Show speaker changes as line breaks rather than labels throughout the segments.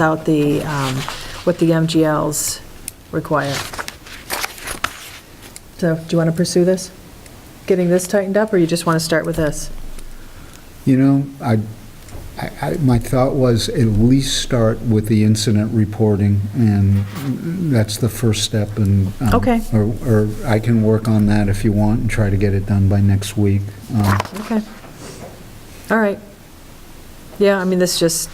out the, um, what the MGLs require. So do you want to pursue this? Getting this tightened up, or you just want to start with this?
You know, I, I, I- my thought was at least start with the incident reporting, and that's the first step, and... um,
Okay.
Or, or I can work on that if you want and try to get it done by next week. Um,
Okay. All right. Yeah, I mean, this just,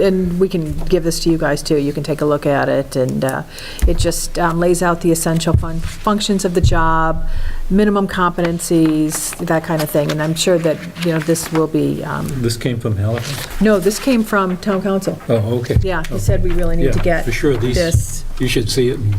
and we can give this to you guys, too. You can take a look at it, and uh, it just um, lays out the essential fun- functions of the job, minimum competencies, that kind of thing. And I'm sure that, you know, this will be, um,
This came from Halifax?
no, this came from town council.
Oh, okay.
Yeah, he said we really need to
Yeah,
get
For sure, these,
this.
you should see it and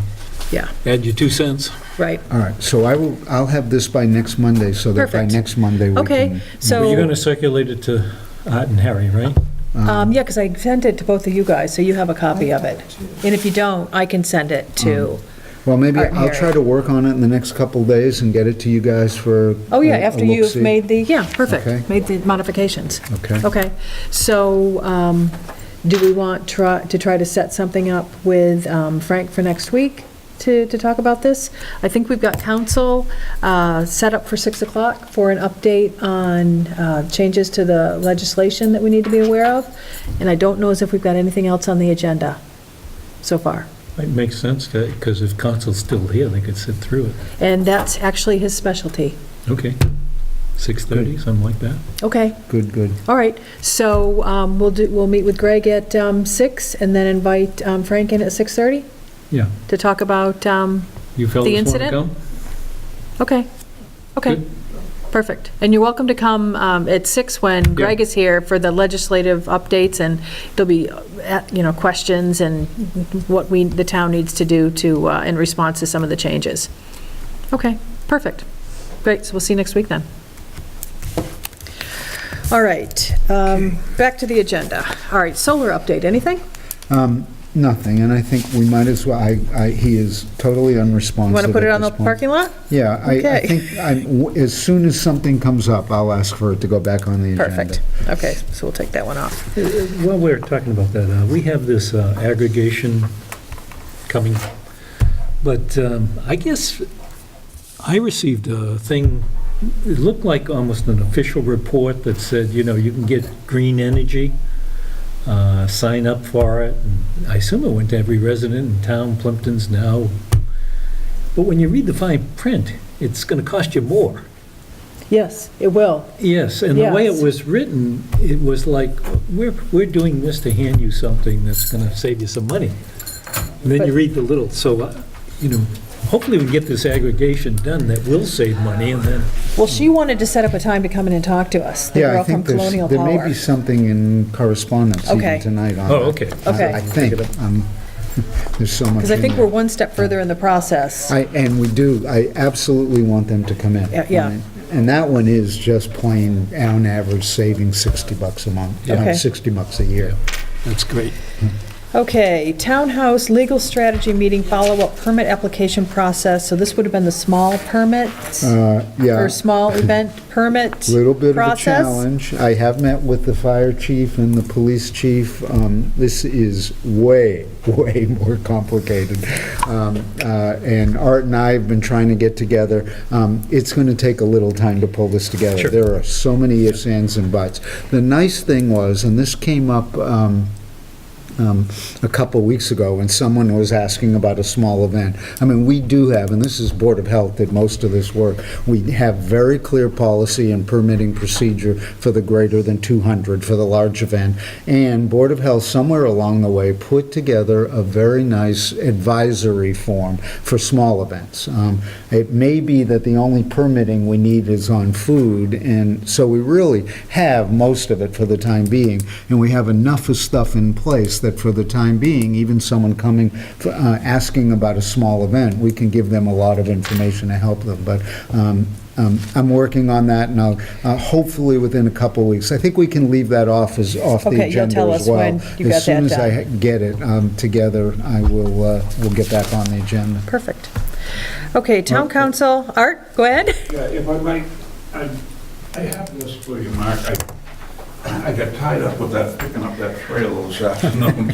Yeah,
add your two cents.
right.
All right, so I will, I'll have this by next Monday, so that by
Perfect.
next Monday we can...
Okay,
But you're
so,
going to circulate it to Art and Harry, right?
um, yeah, because I sent it to both of you guys, so you have a copy of it. And if you don't, I can send it
Mm.
to,
Well, maybe
All right,
I'll try
Harry.
to work on it in the next couple days and get it to you guys for...
oh, yeah,
a- a
after you've
look-see.
made the, yeah,
Okay.
perfect, made the modifications.
Okay.
Okay, so um, do we want try- to try to set something up with um, Frank for next week to to talk about this? I think we've got council uh, set up for 6 o'clock for an update on uh, changes to the legislation that we need to be aware of, and I don't know as if we've got anything else on the agenda so far.
It makes sense, because if council's still here, they could sit through it.
And that's actually his specialty.
Okay. 6:30, something like that.
Okay,
Good, good.
all right, so um, we'll do, we'll meet with Greg at um, 6 and then invite um, Frank in at 6:30?
Yeah.
to talk about, um,
You fellas want to
incident?
come?
okay, okay,
Good.
perfect. And you're welcome to come um, at six when Greg is here for the legislative updates, and there'll be, uh, you know, questions and what we, the town needs to do to, uh, in response to some of the changes. Okay, perfect. Great, so we'll see you next week then. All right, um, back to the agenda. All right, solar update, anything?
Um, Nothing, and I think we might as well, I, I, he is totally unresponsive
Want to put it
at
on the
this point.
parking lot?
Yeah, I, I
Okay.
think, I'm- w- as soon as something comes up, I'll ask for it to go back on the agenda.
Perfect, okay, so we'll take that one off.
While we're talking about that, uh, we have this uh, aggregation coming, but um, I guess I received a thing, it looked like almost an official report that said, you know, you can get green energy, uh, sign up for it. And I assume it went to every resident in town, Plimpton's now. But when you read the fine print, it's going to cost you more.
Yes, it will.
Yes, and the way
Yes.
it was written, it was like, we're, we're doing this to hand you something that's going to save you some money. And then you
But-
read the little, so, uh, you know, hopefully we get this aggregation done that will save money and then,
Well, she wanted to set up a time to come in and talk to us, the
Yeah, I
girl from
think there's,
Colonial
there may
Power.
be something in correspondence
Okay.
even tonight on that.
Oh, okay.
I-
Okay.
I think, um, there's so much
Because I
in
think
there.
we're one step further in the process.
I, and we do, I absolutely want them to come in.
Yeah, yeah.
And that one is just plain, on average, saving 60 bucks a month,
Yeah.
uh,
Okay.
60 bucks a year.
that's great.
Okay, townhouse legal strategy meeting follow-up permit application process. So this would have been the small permit,
Uh, Yeah.
or small event permit
Little bit of a
process?
challenge. I have met with the fire chief and the police chief. Um, This is way, way more complicated. Um, uh, And Art and I have been trying to get together. Um, It's going to take a little time to pull this together.
Sure.
There are so many ifs, ands, and buts. The nice thing was, and this came up um, um, a couple weeks ago when someone was asking about a small event. I mean, we do have, and this is Board of Health did most of this work, we have very clear policy and permitting procedure for the greater than 200 for the large event. And Board of Health, somewhere along the way, put together a very nice advisory form for small events. Um, It may be that the only permitting we need is on food, and so we really have most of it for the time being, and we have enough of stuff in place that for the time being, even someone coming, uh, asking about a small event, we can give them a lot of information to help them. But um, um, I'm working on that, and I'll, uh, hopefully within a couple weeks. I think we can leave that off as, off
Okay,
the
you'll
agenda
tell
as
us
well.
when you got that
As soon
done.
as I get it um, together, I will, uh, we'll get back on the agenda.
Perfect. Okay,
Uh,
town council, Art, go ahead.
Yeah, if I might, I I have this for you, Mark. I I got tied up with that, picking up that trailer this afternoon,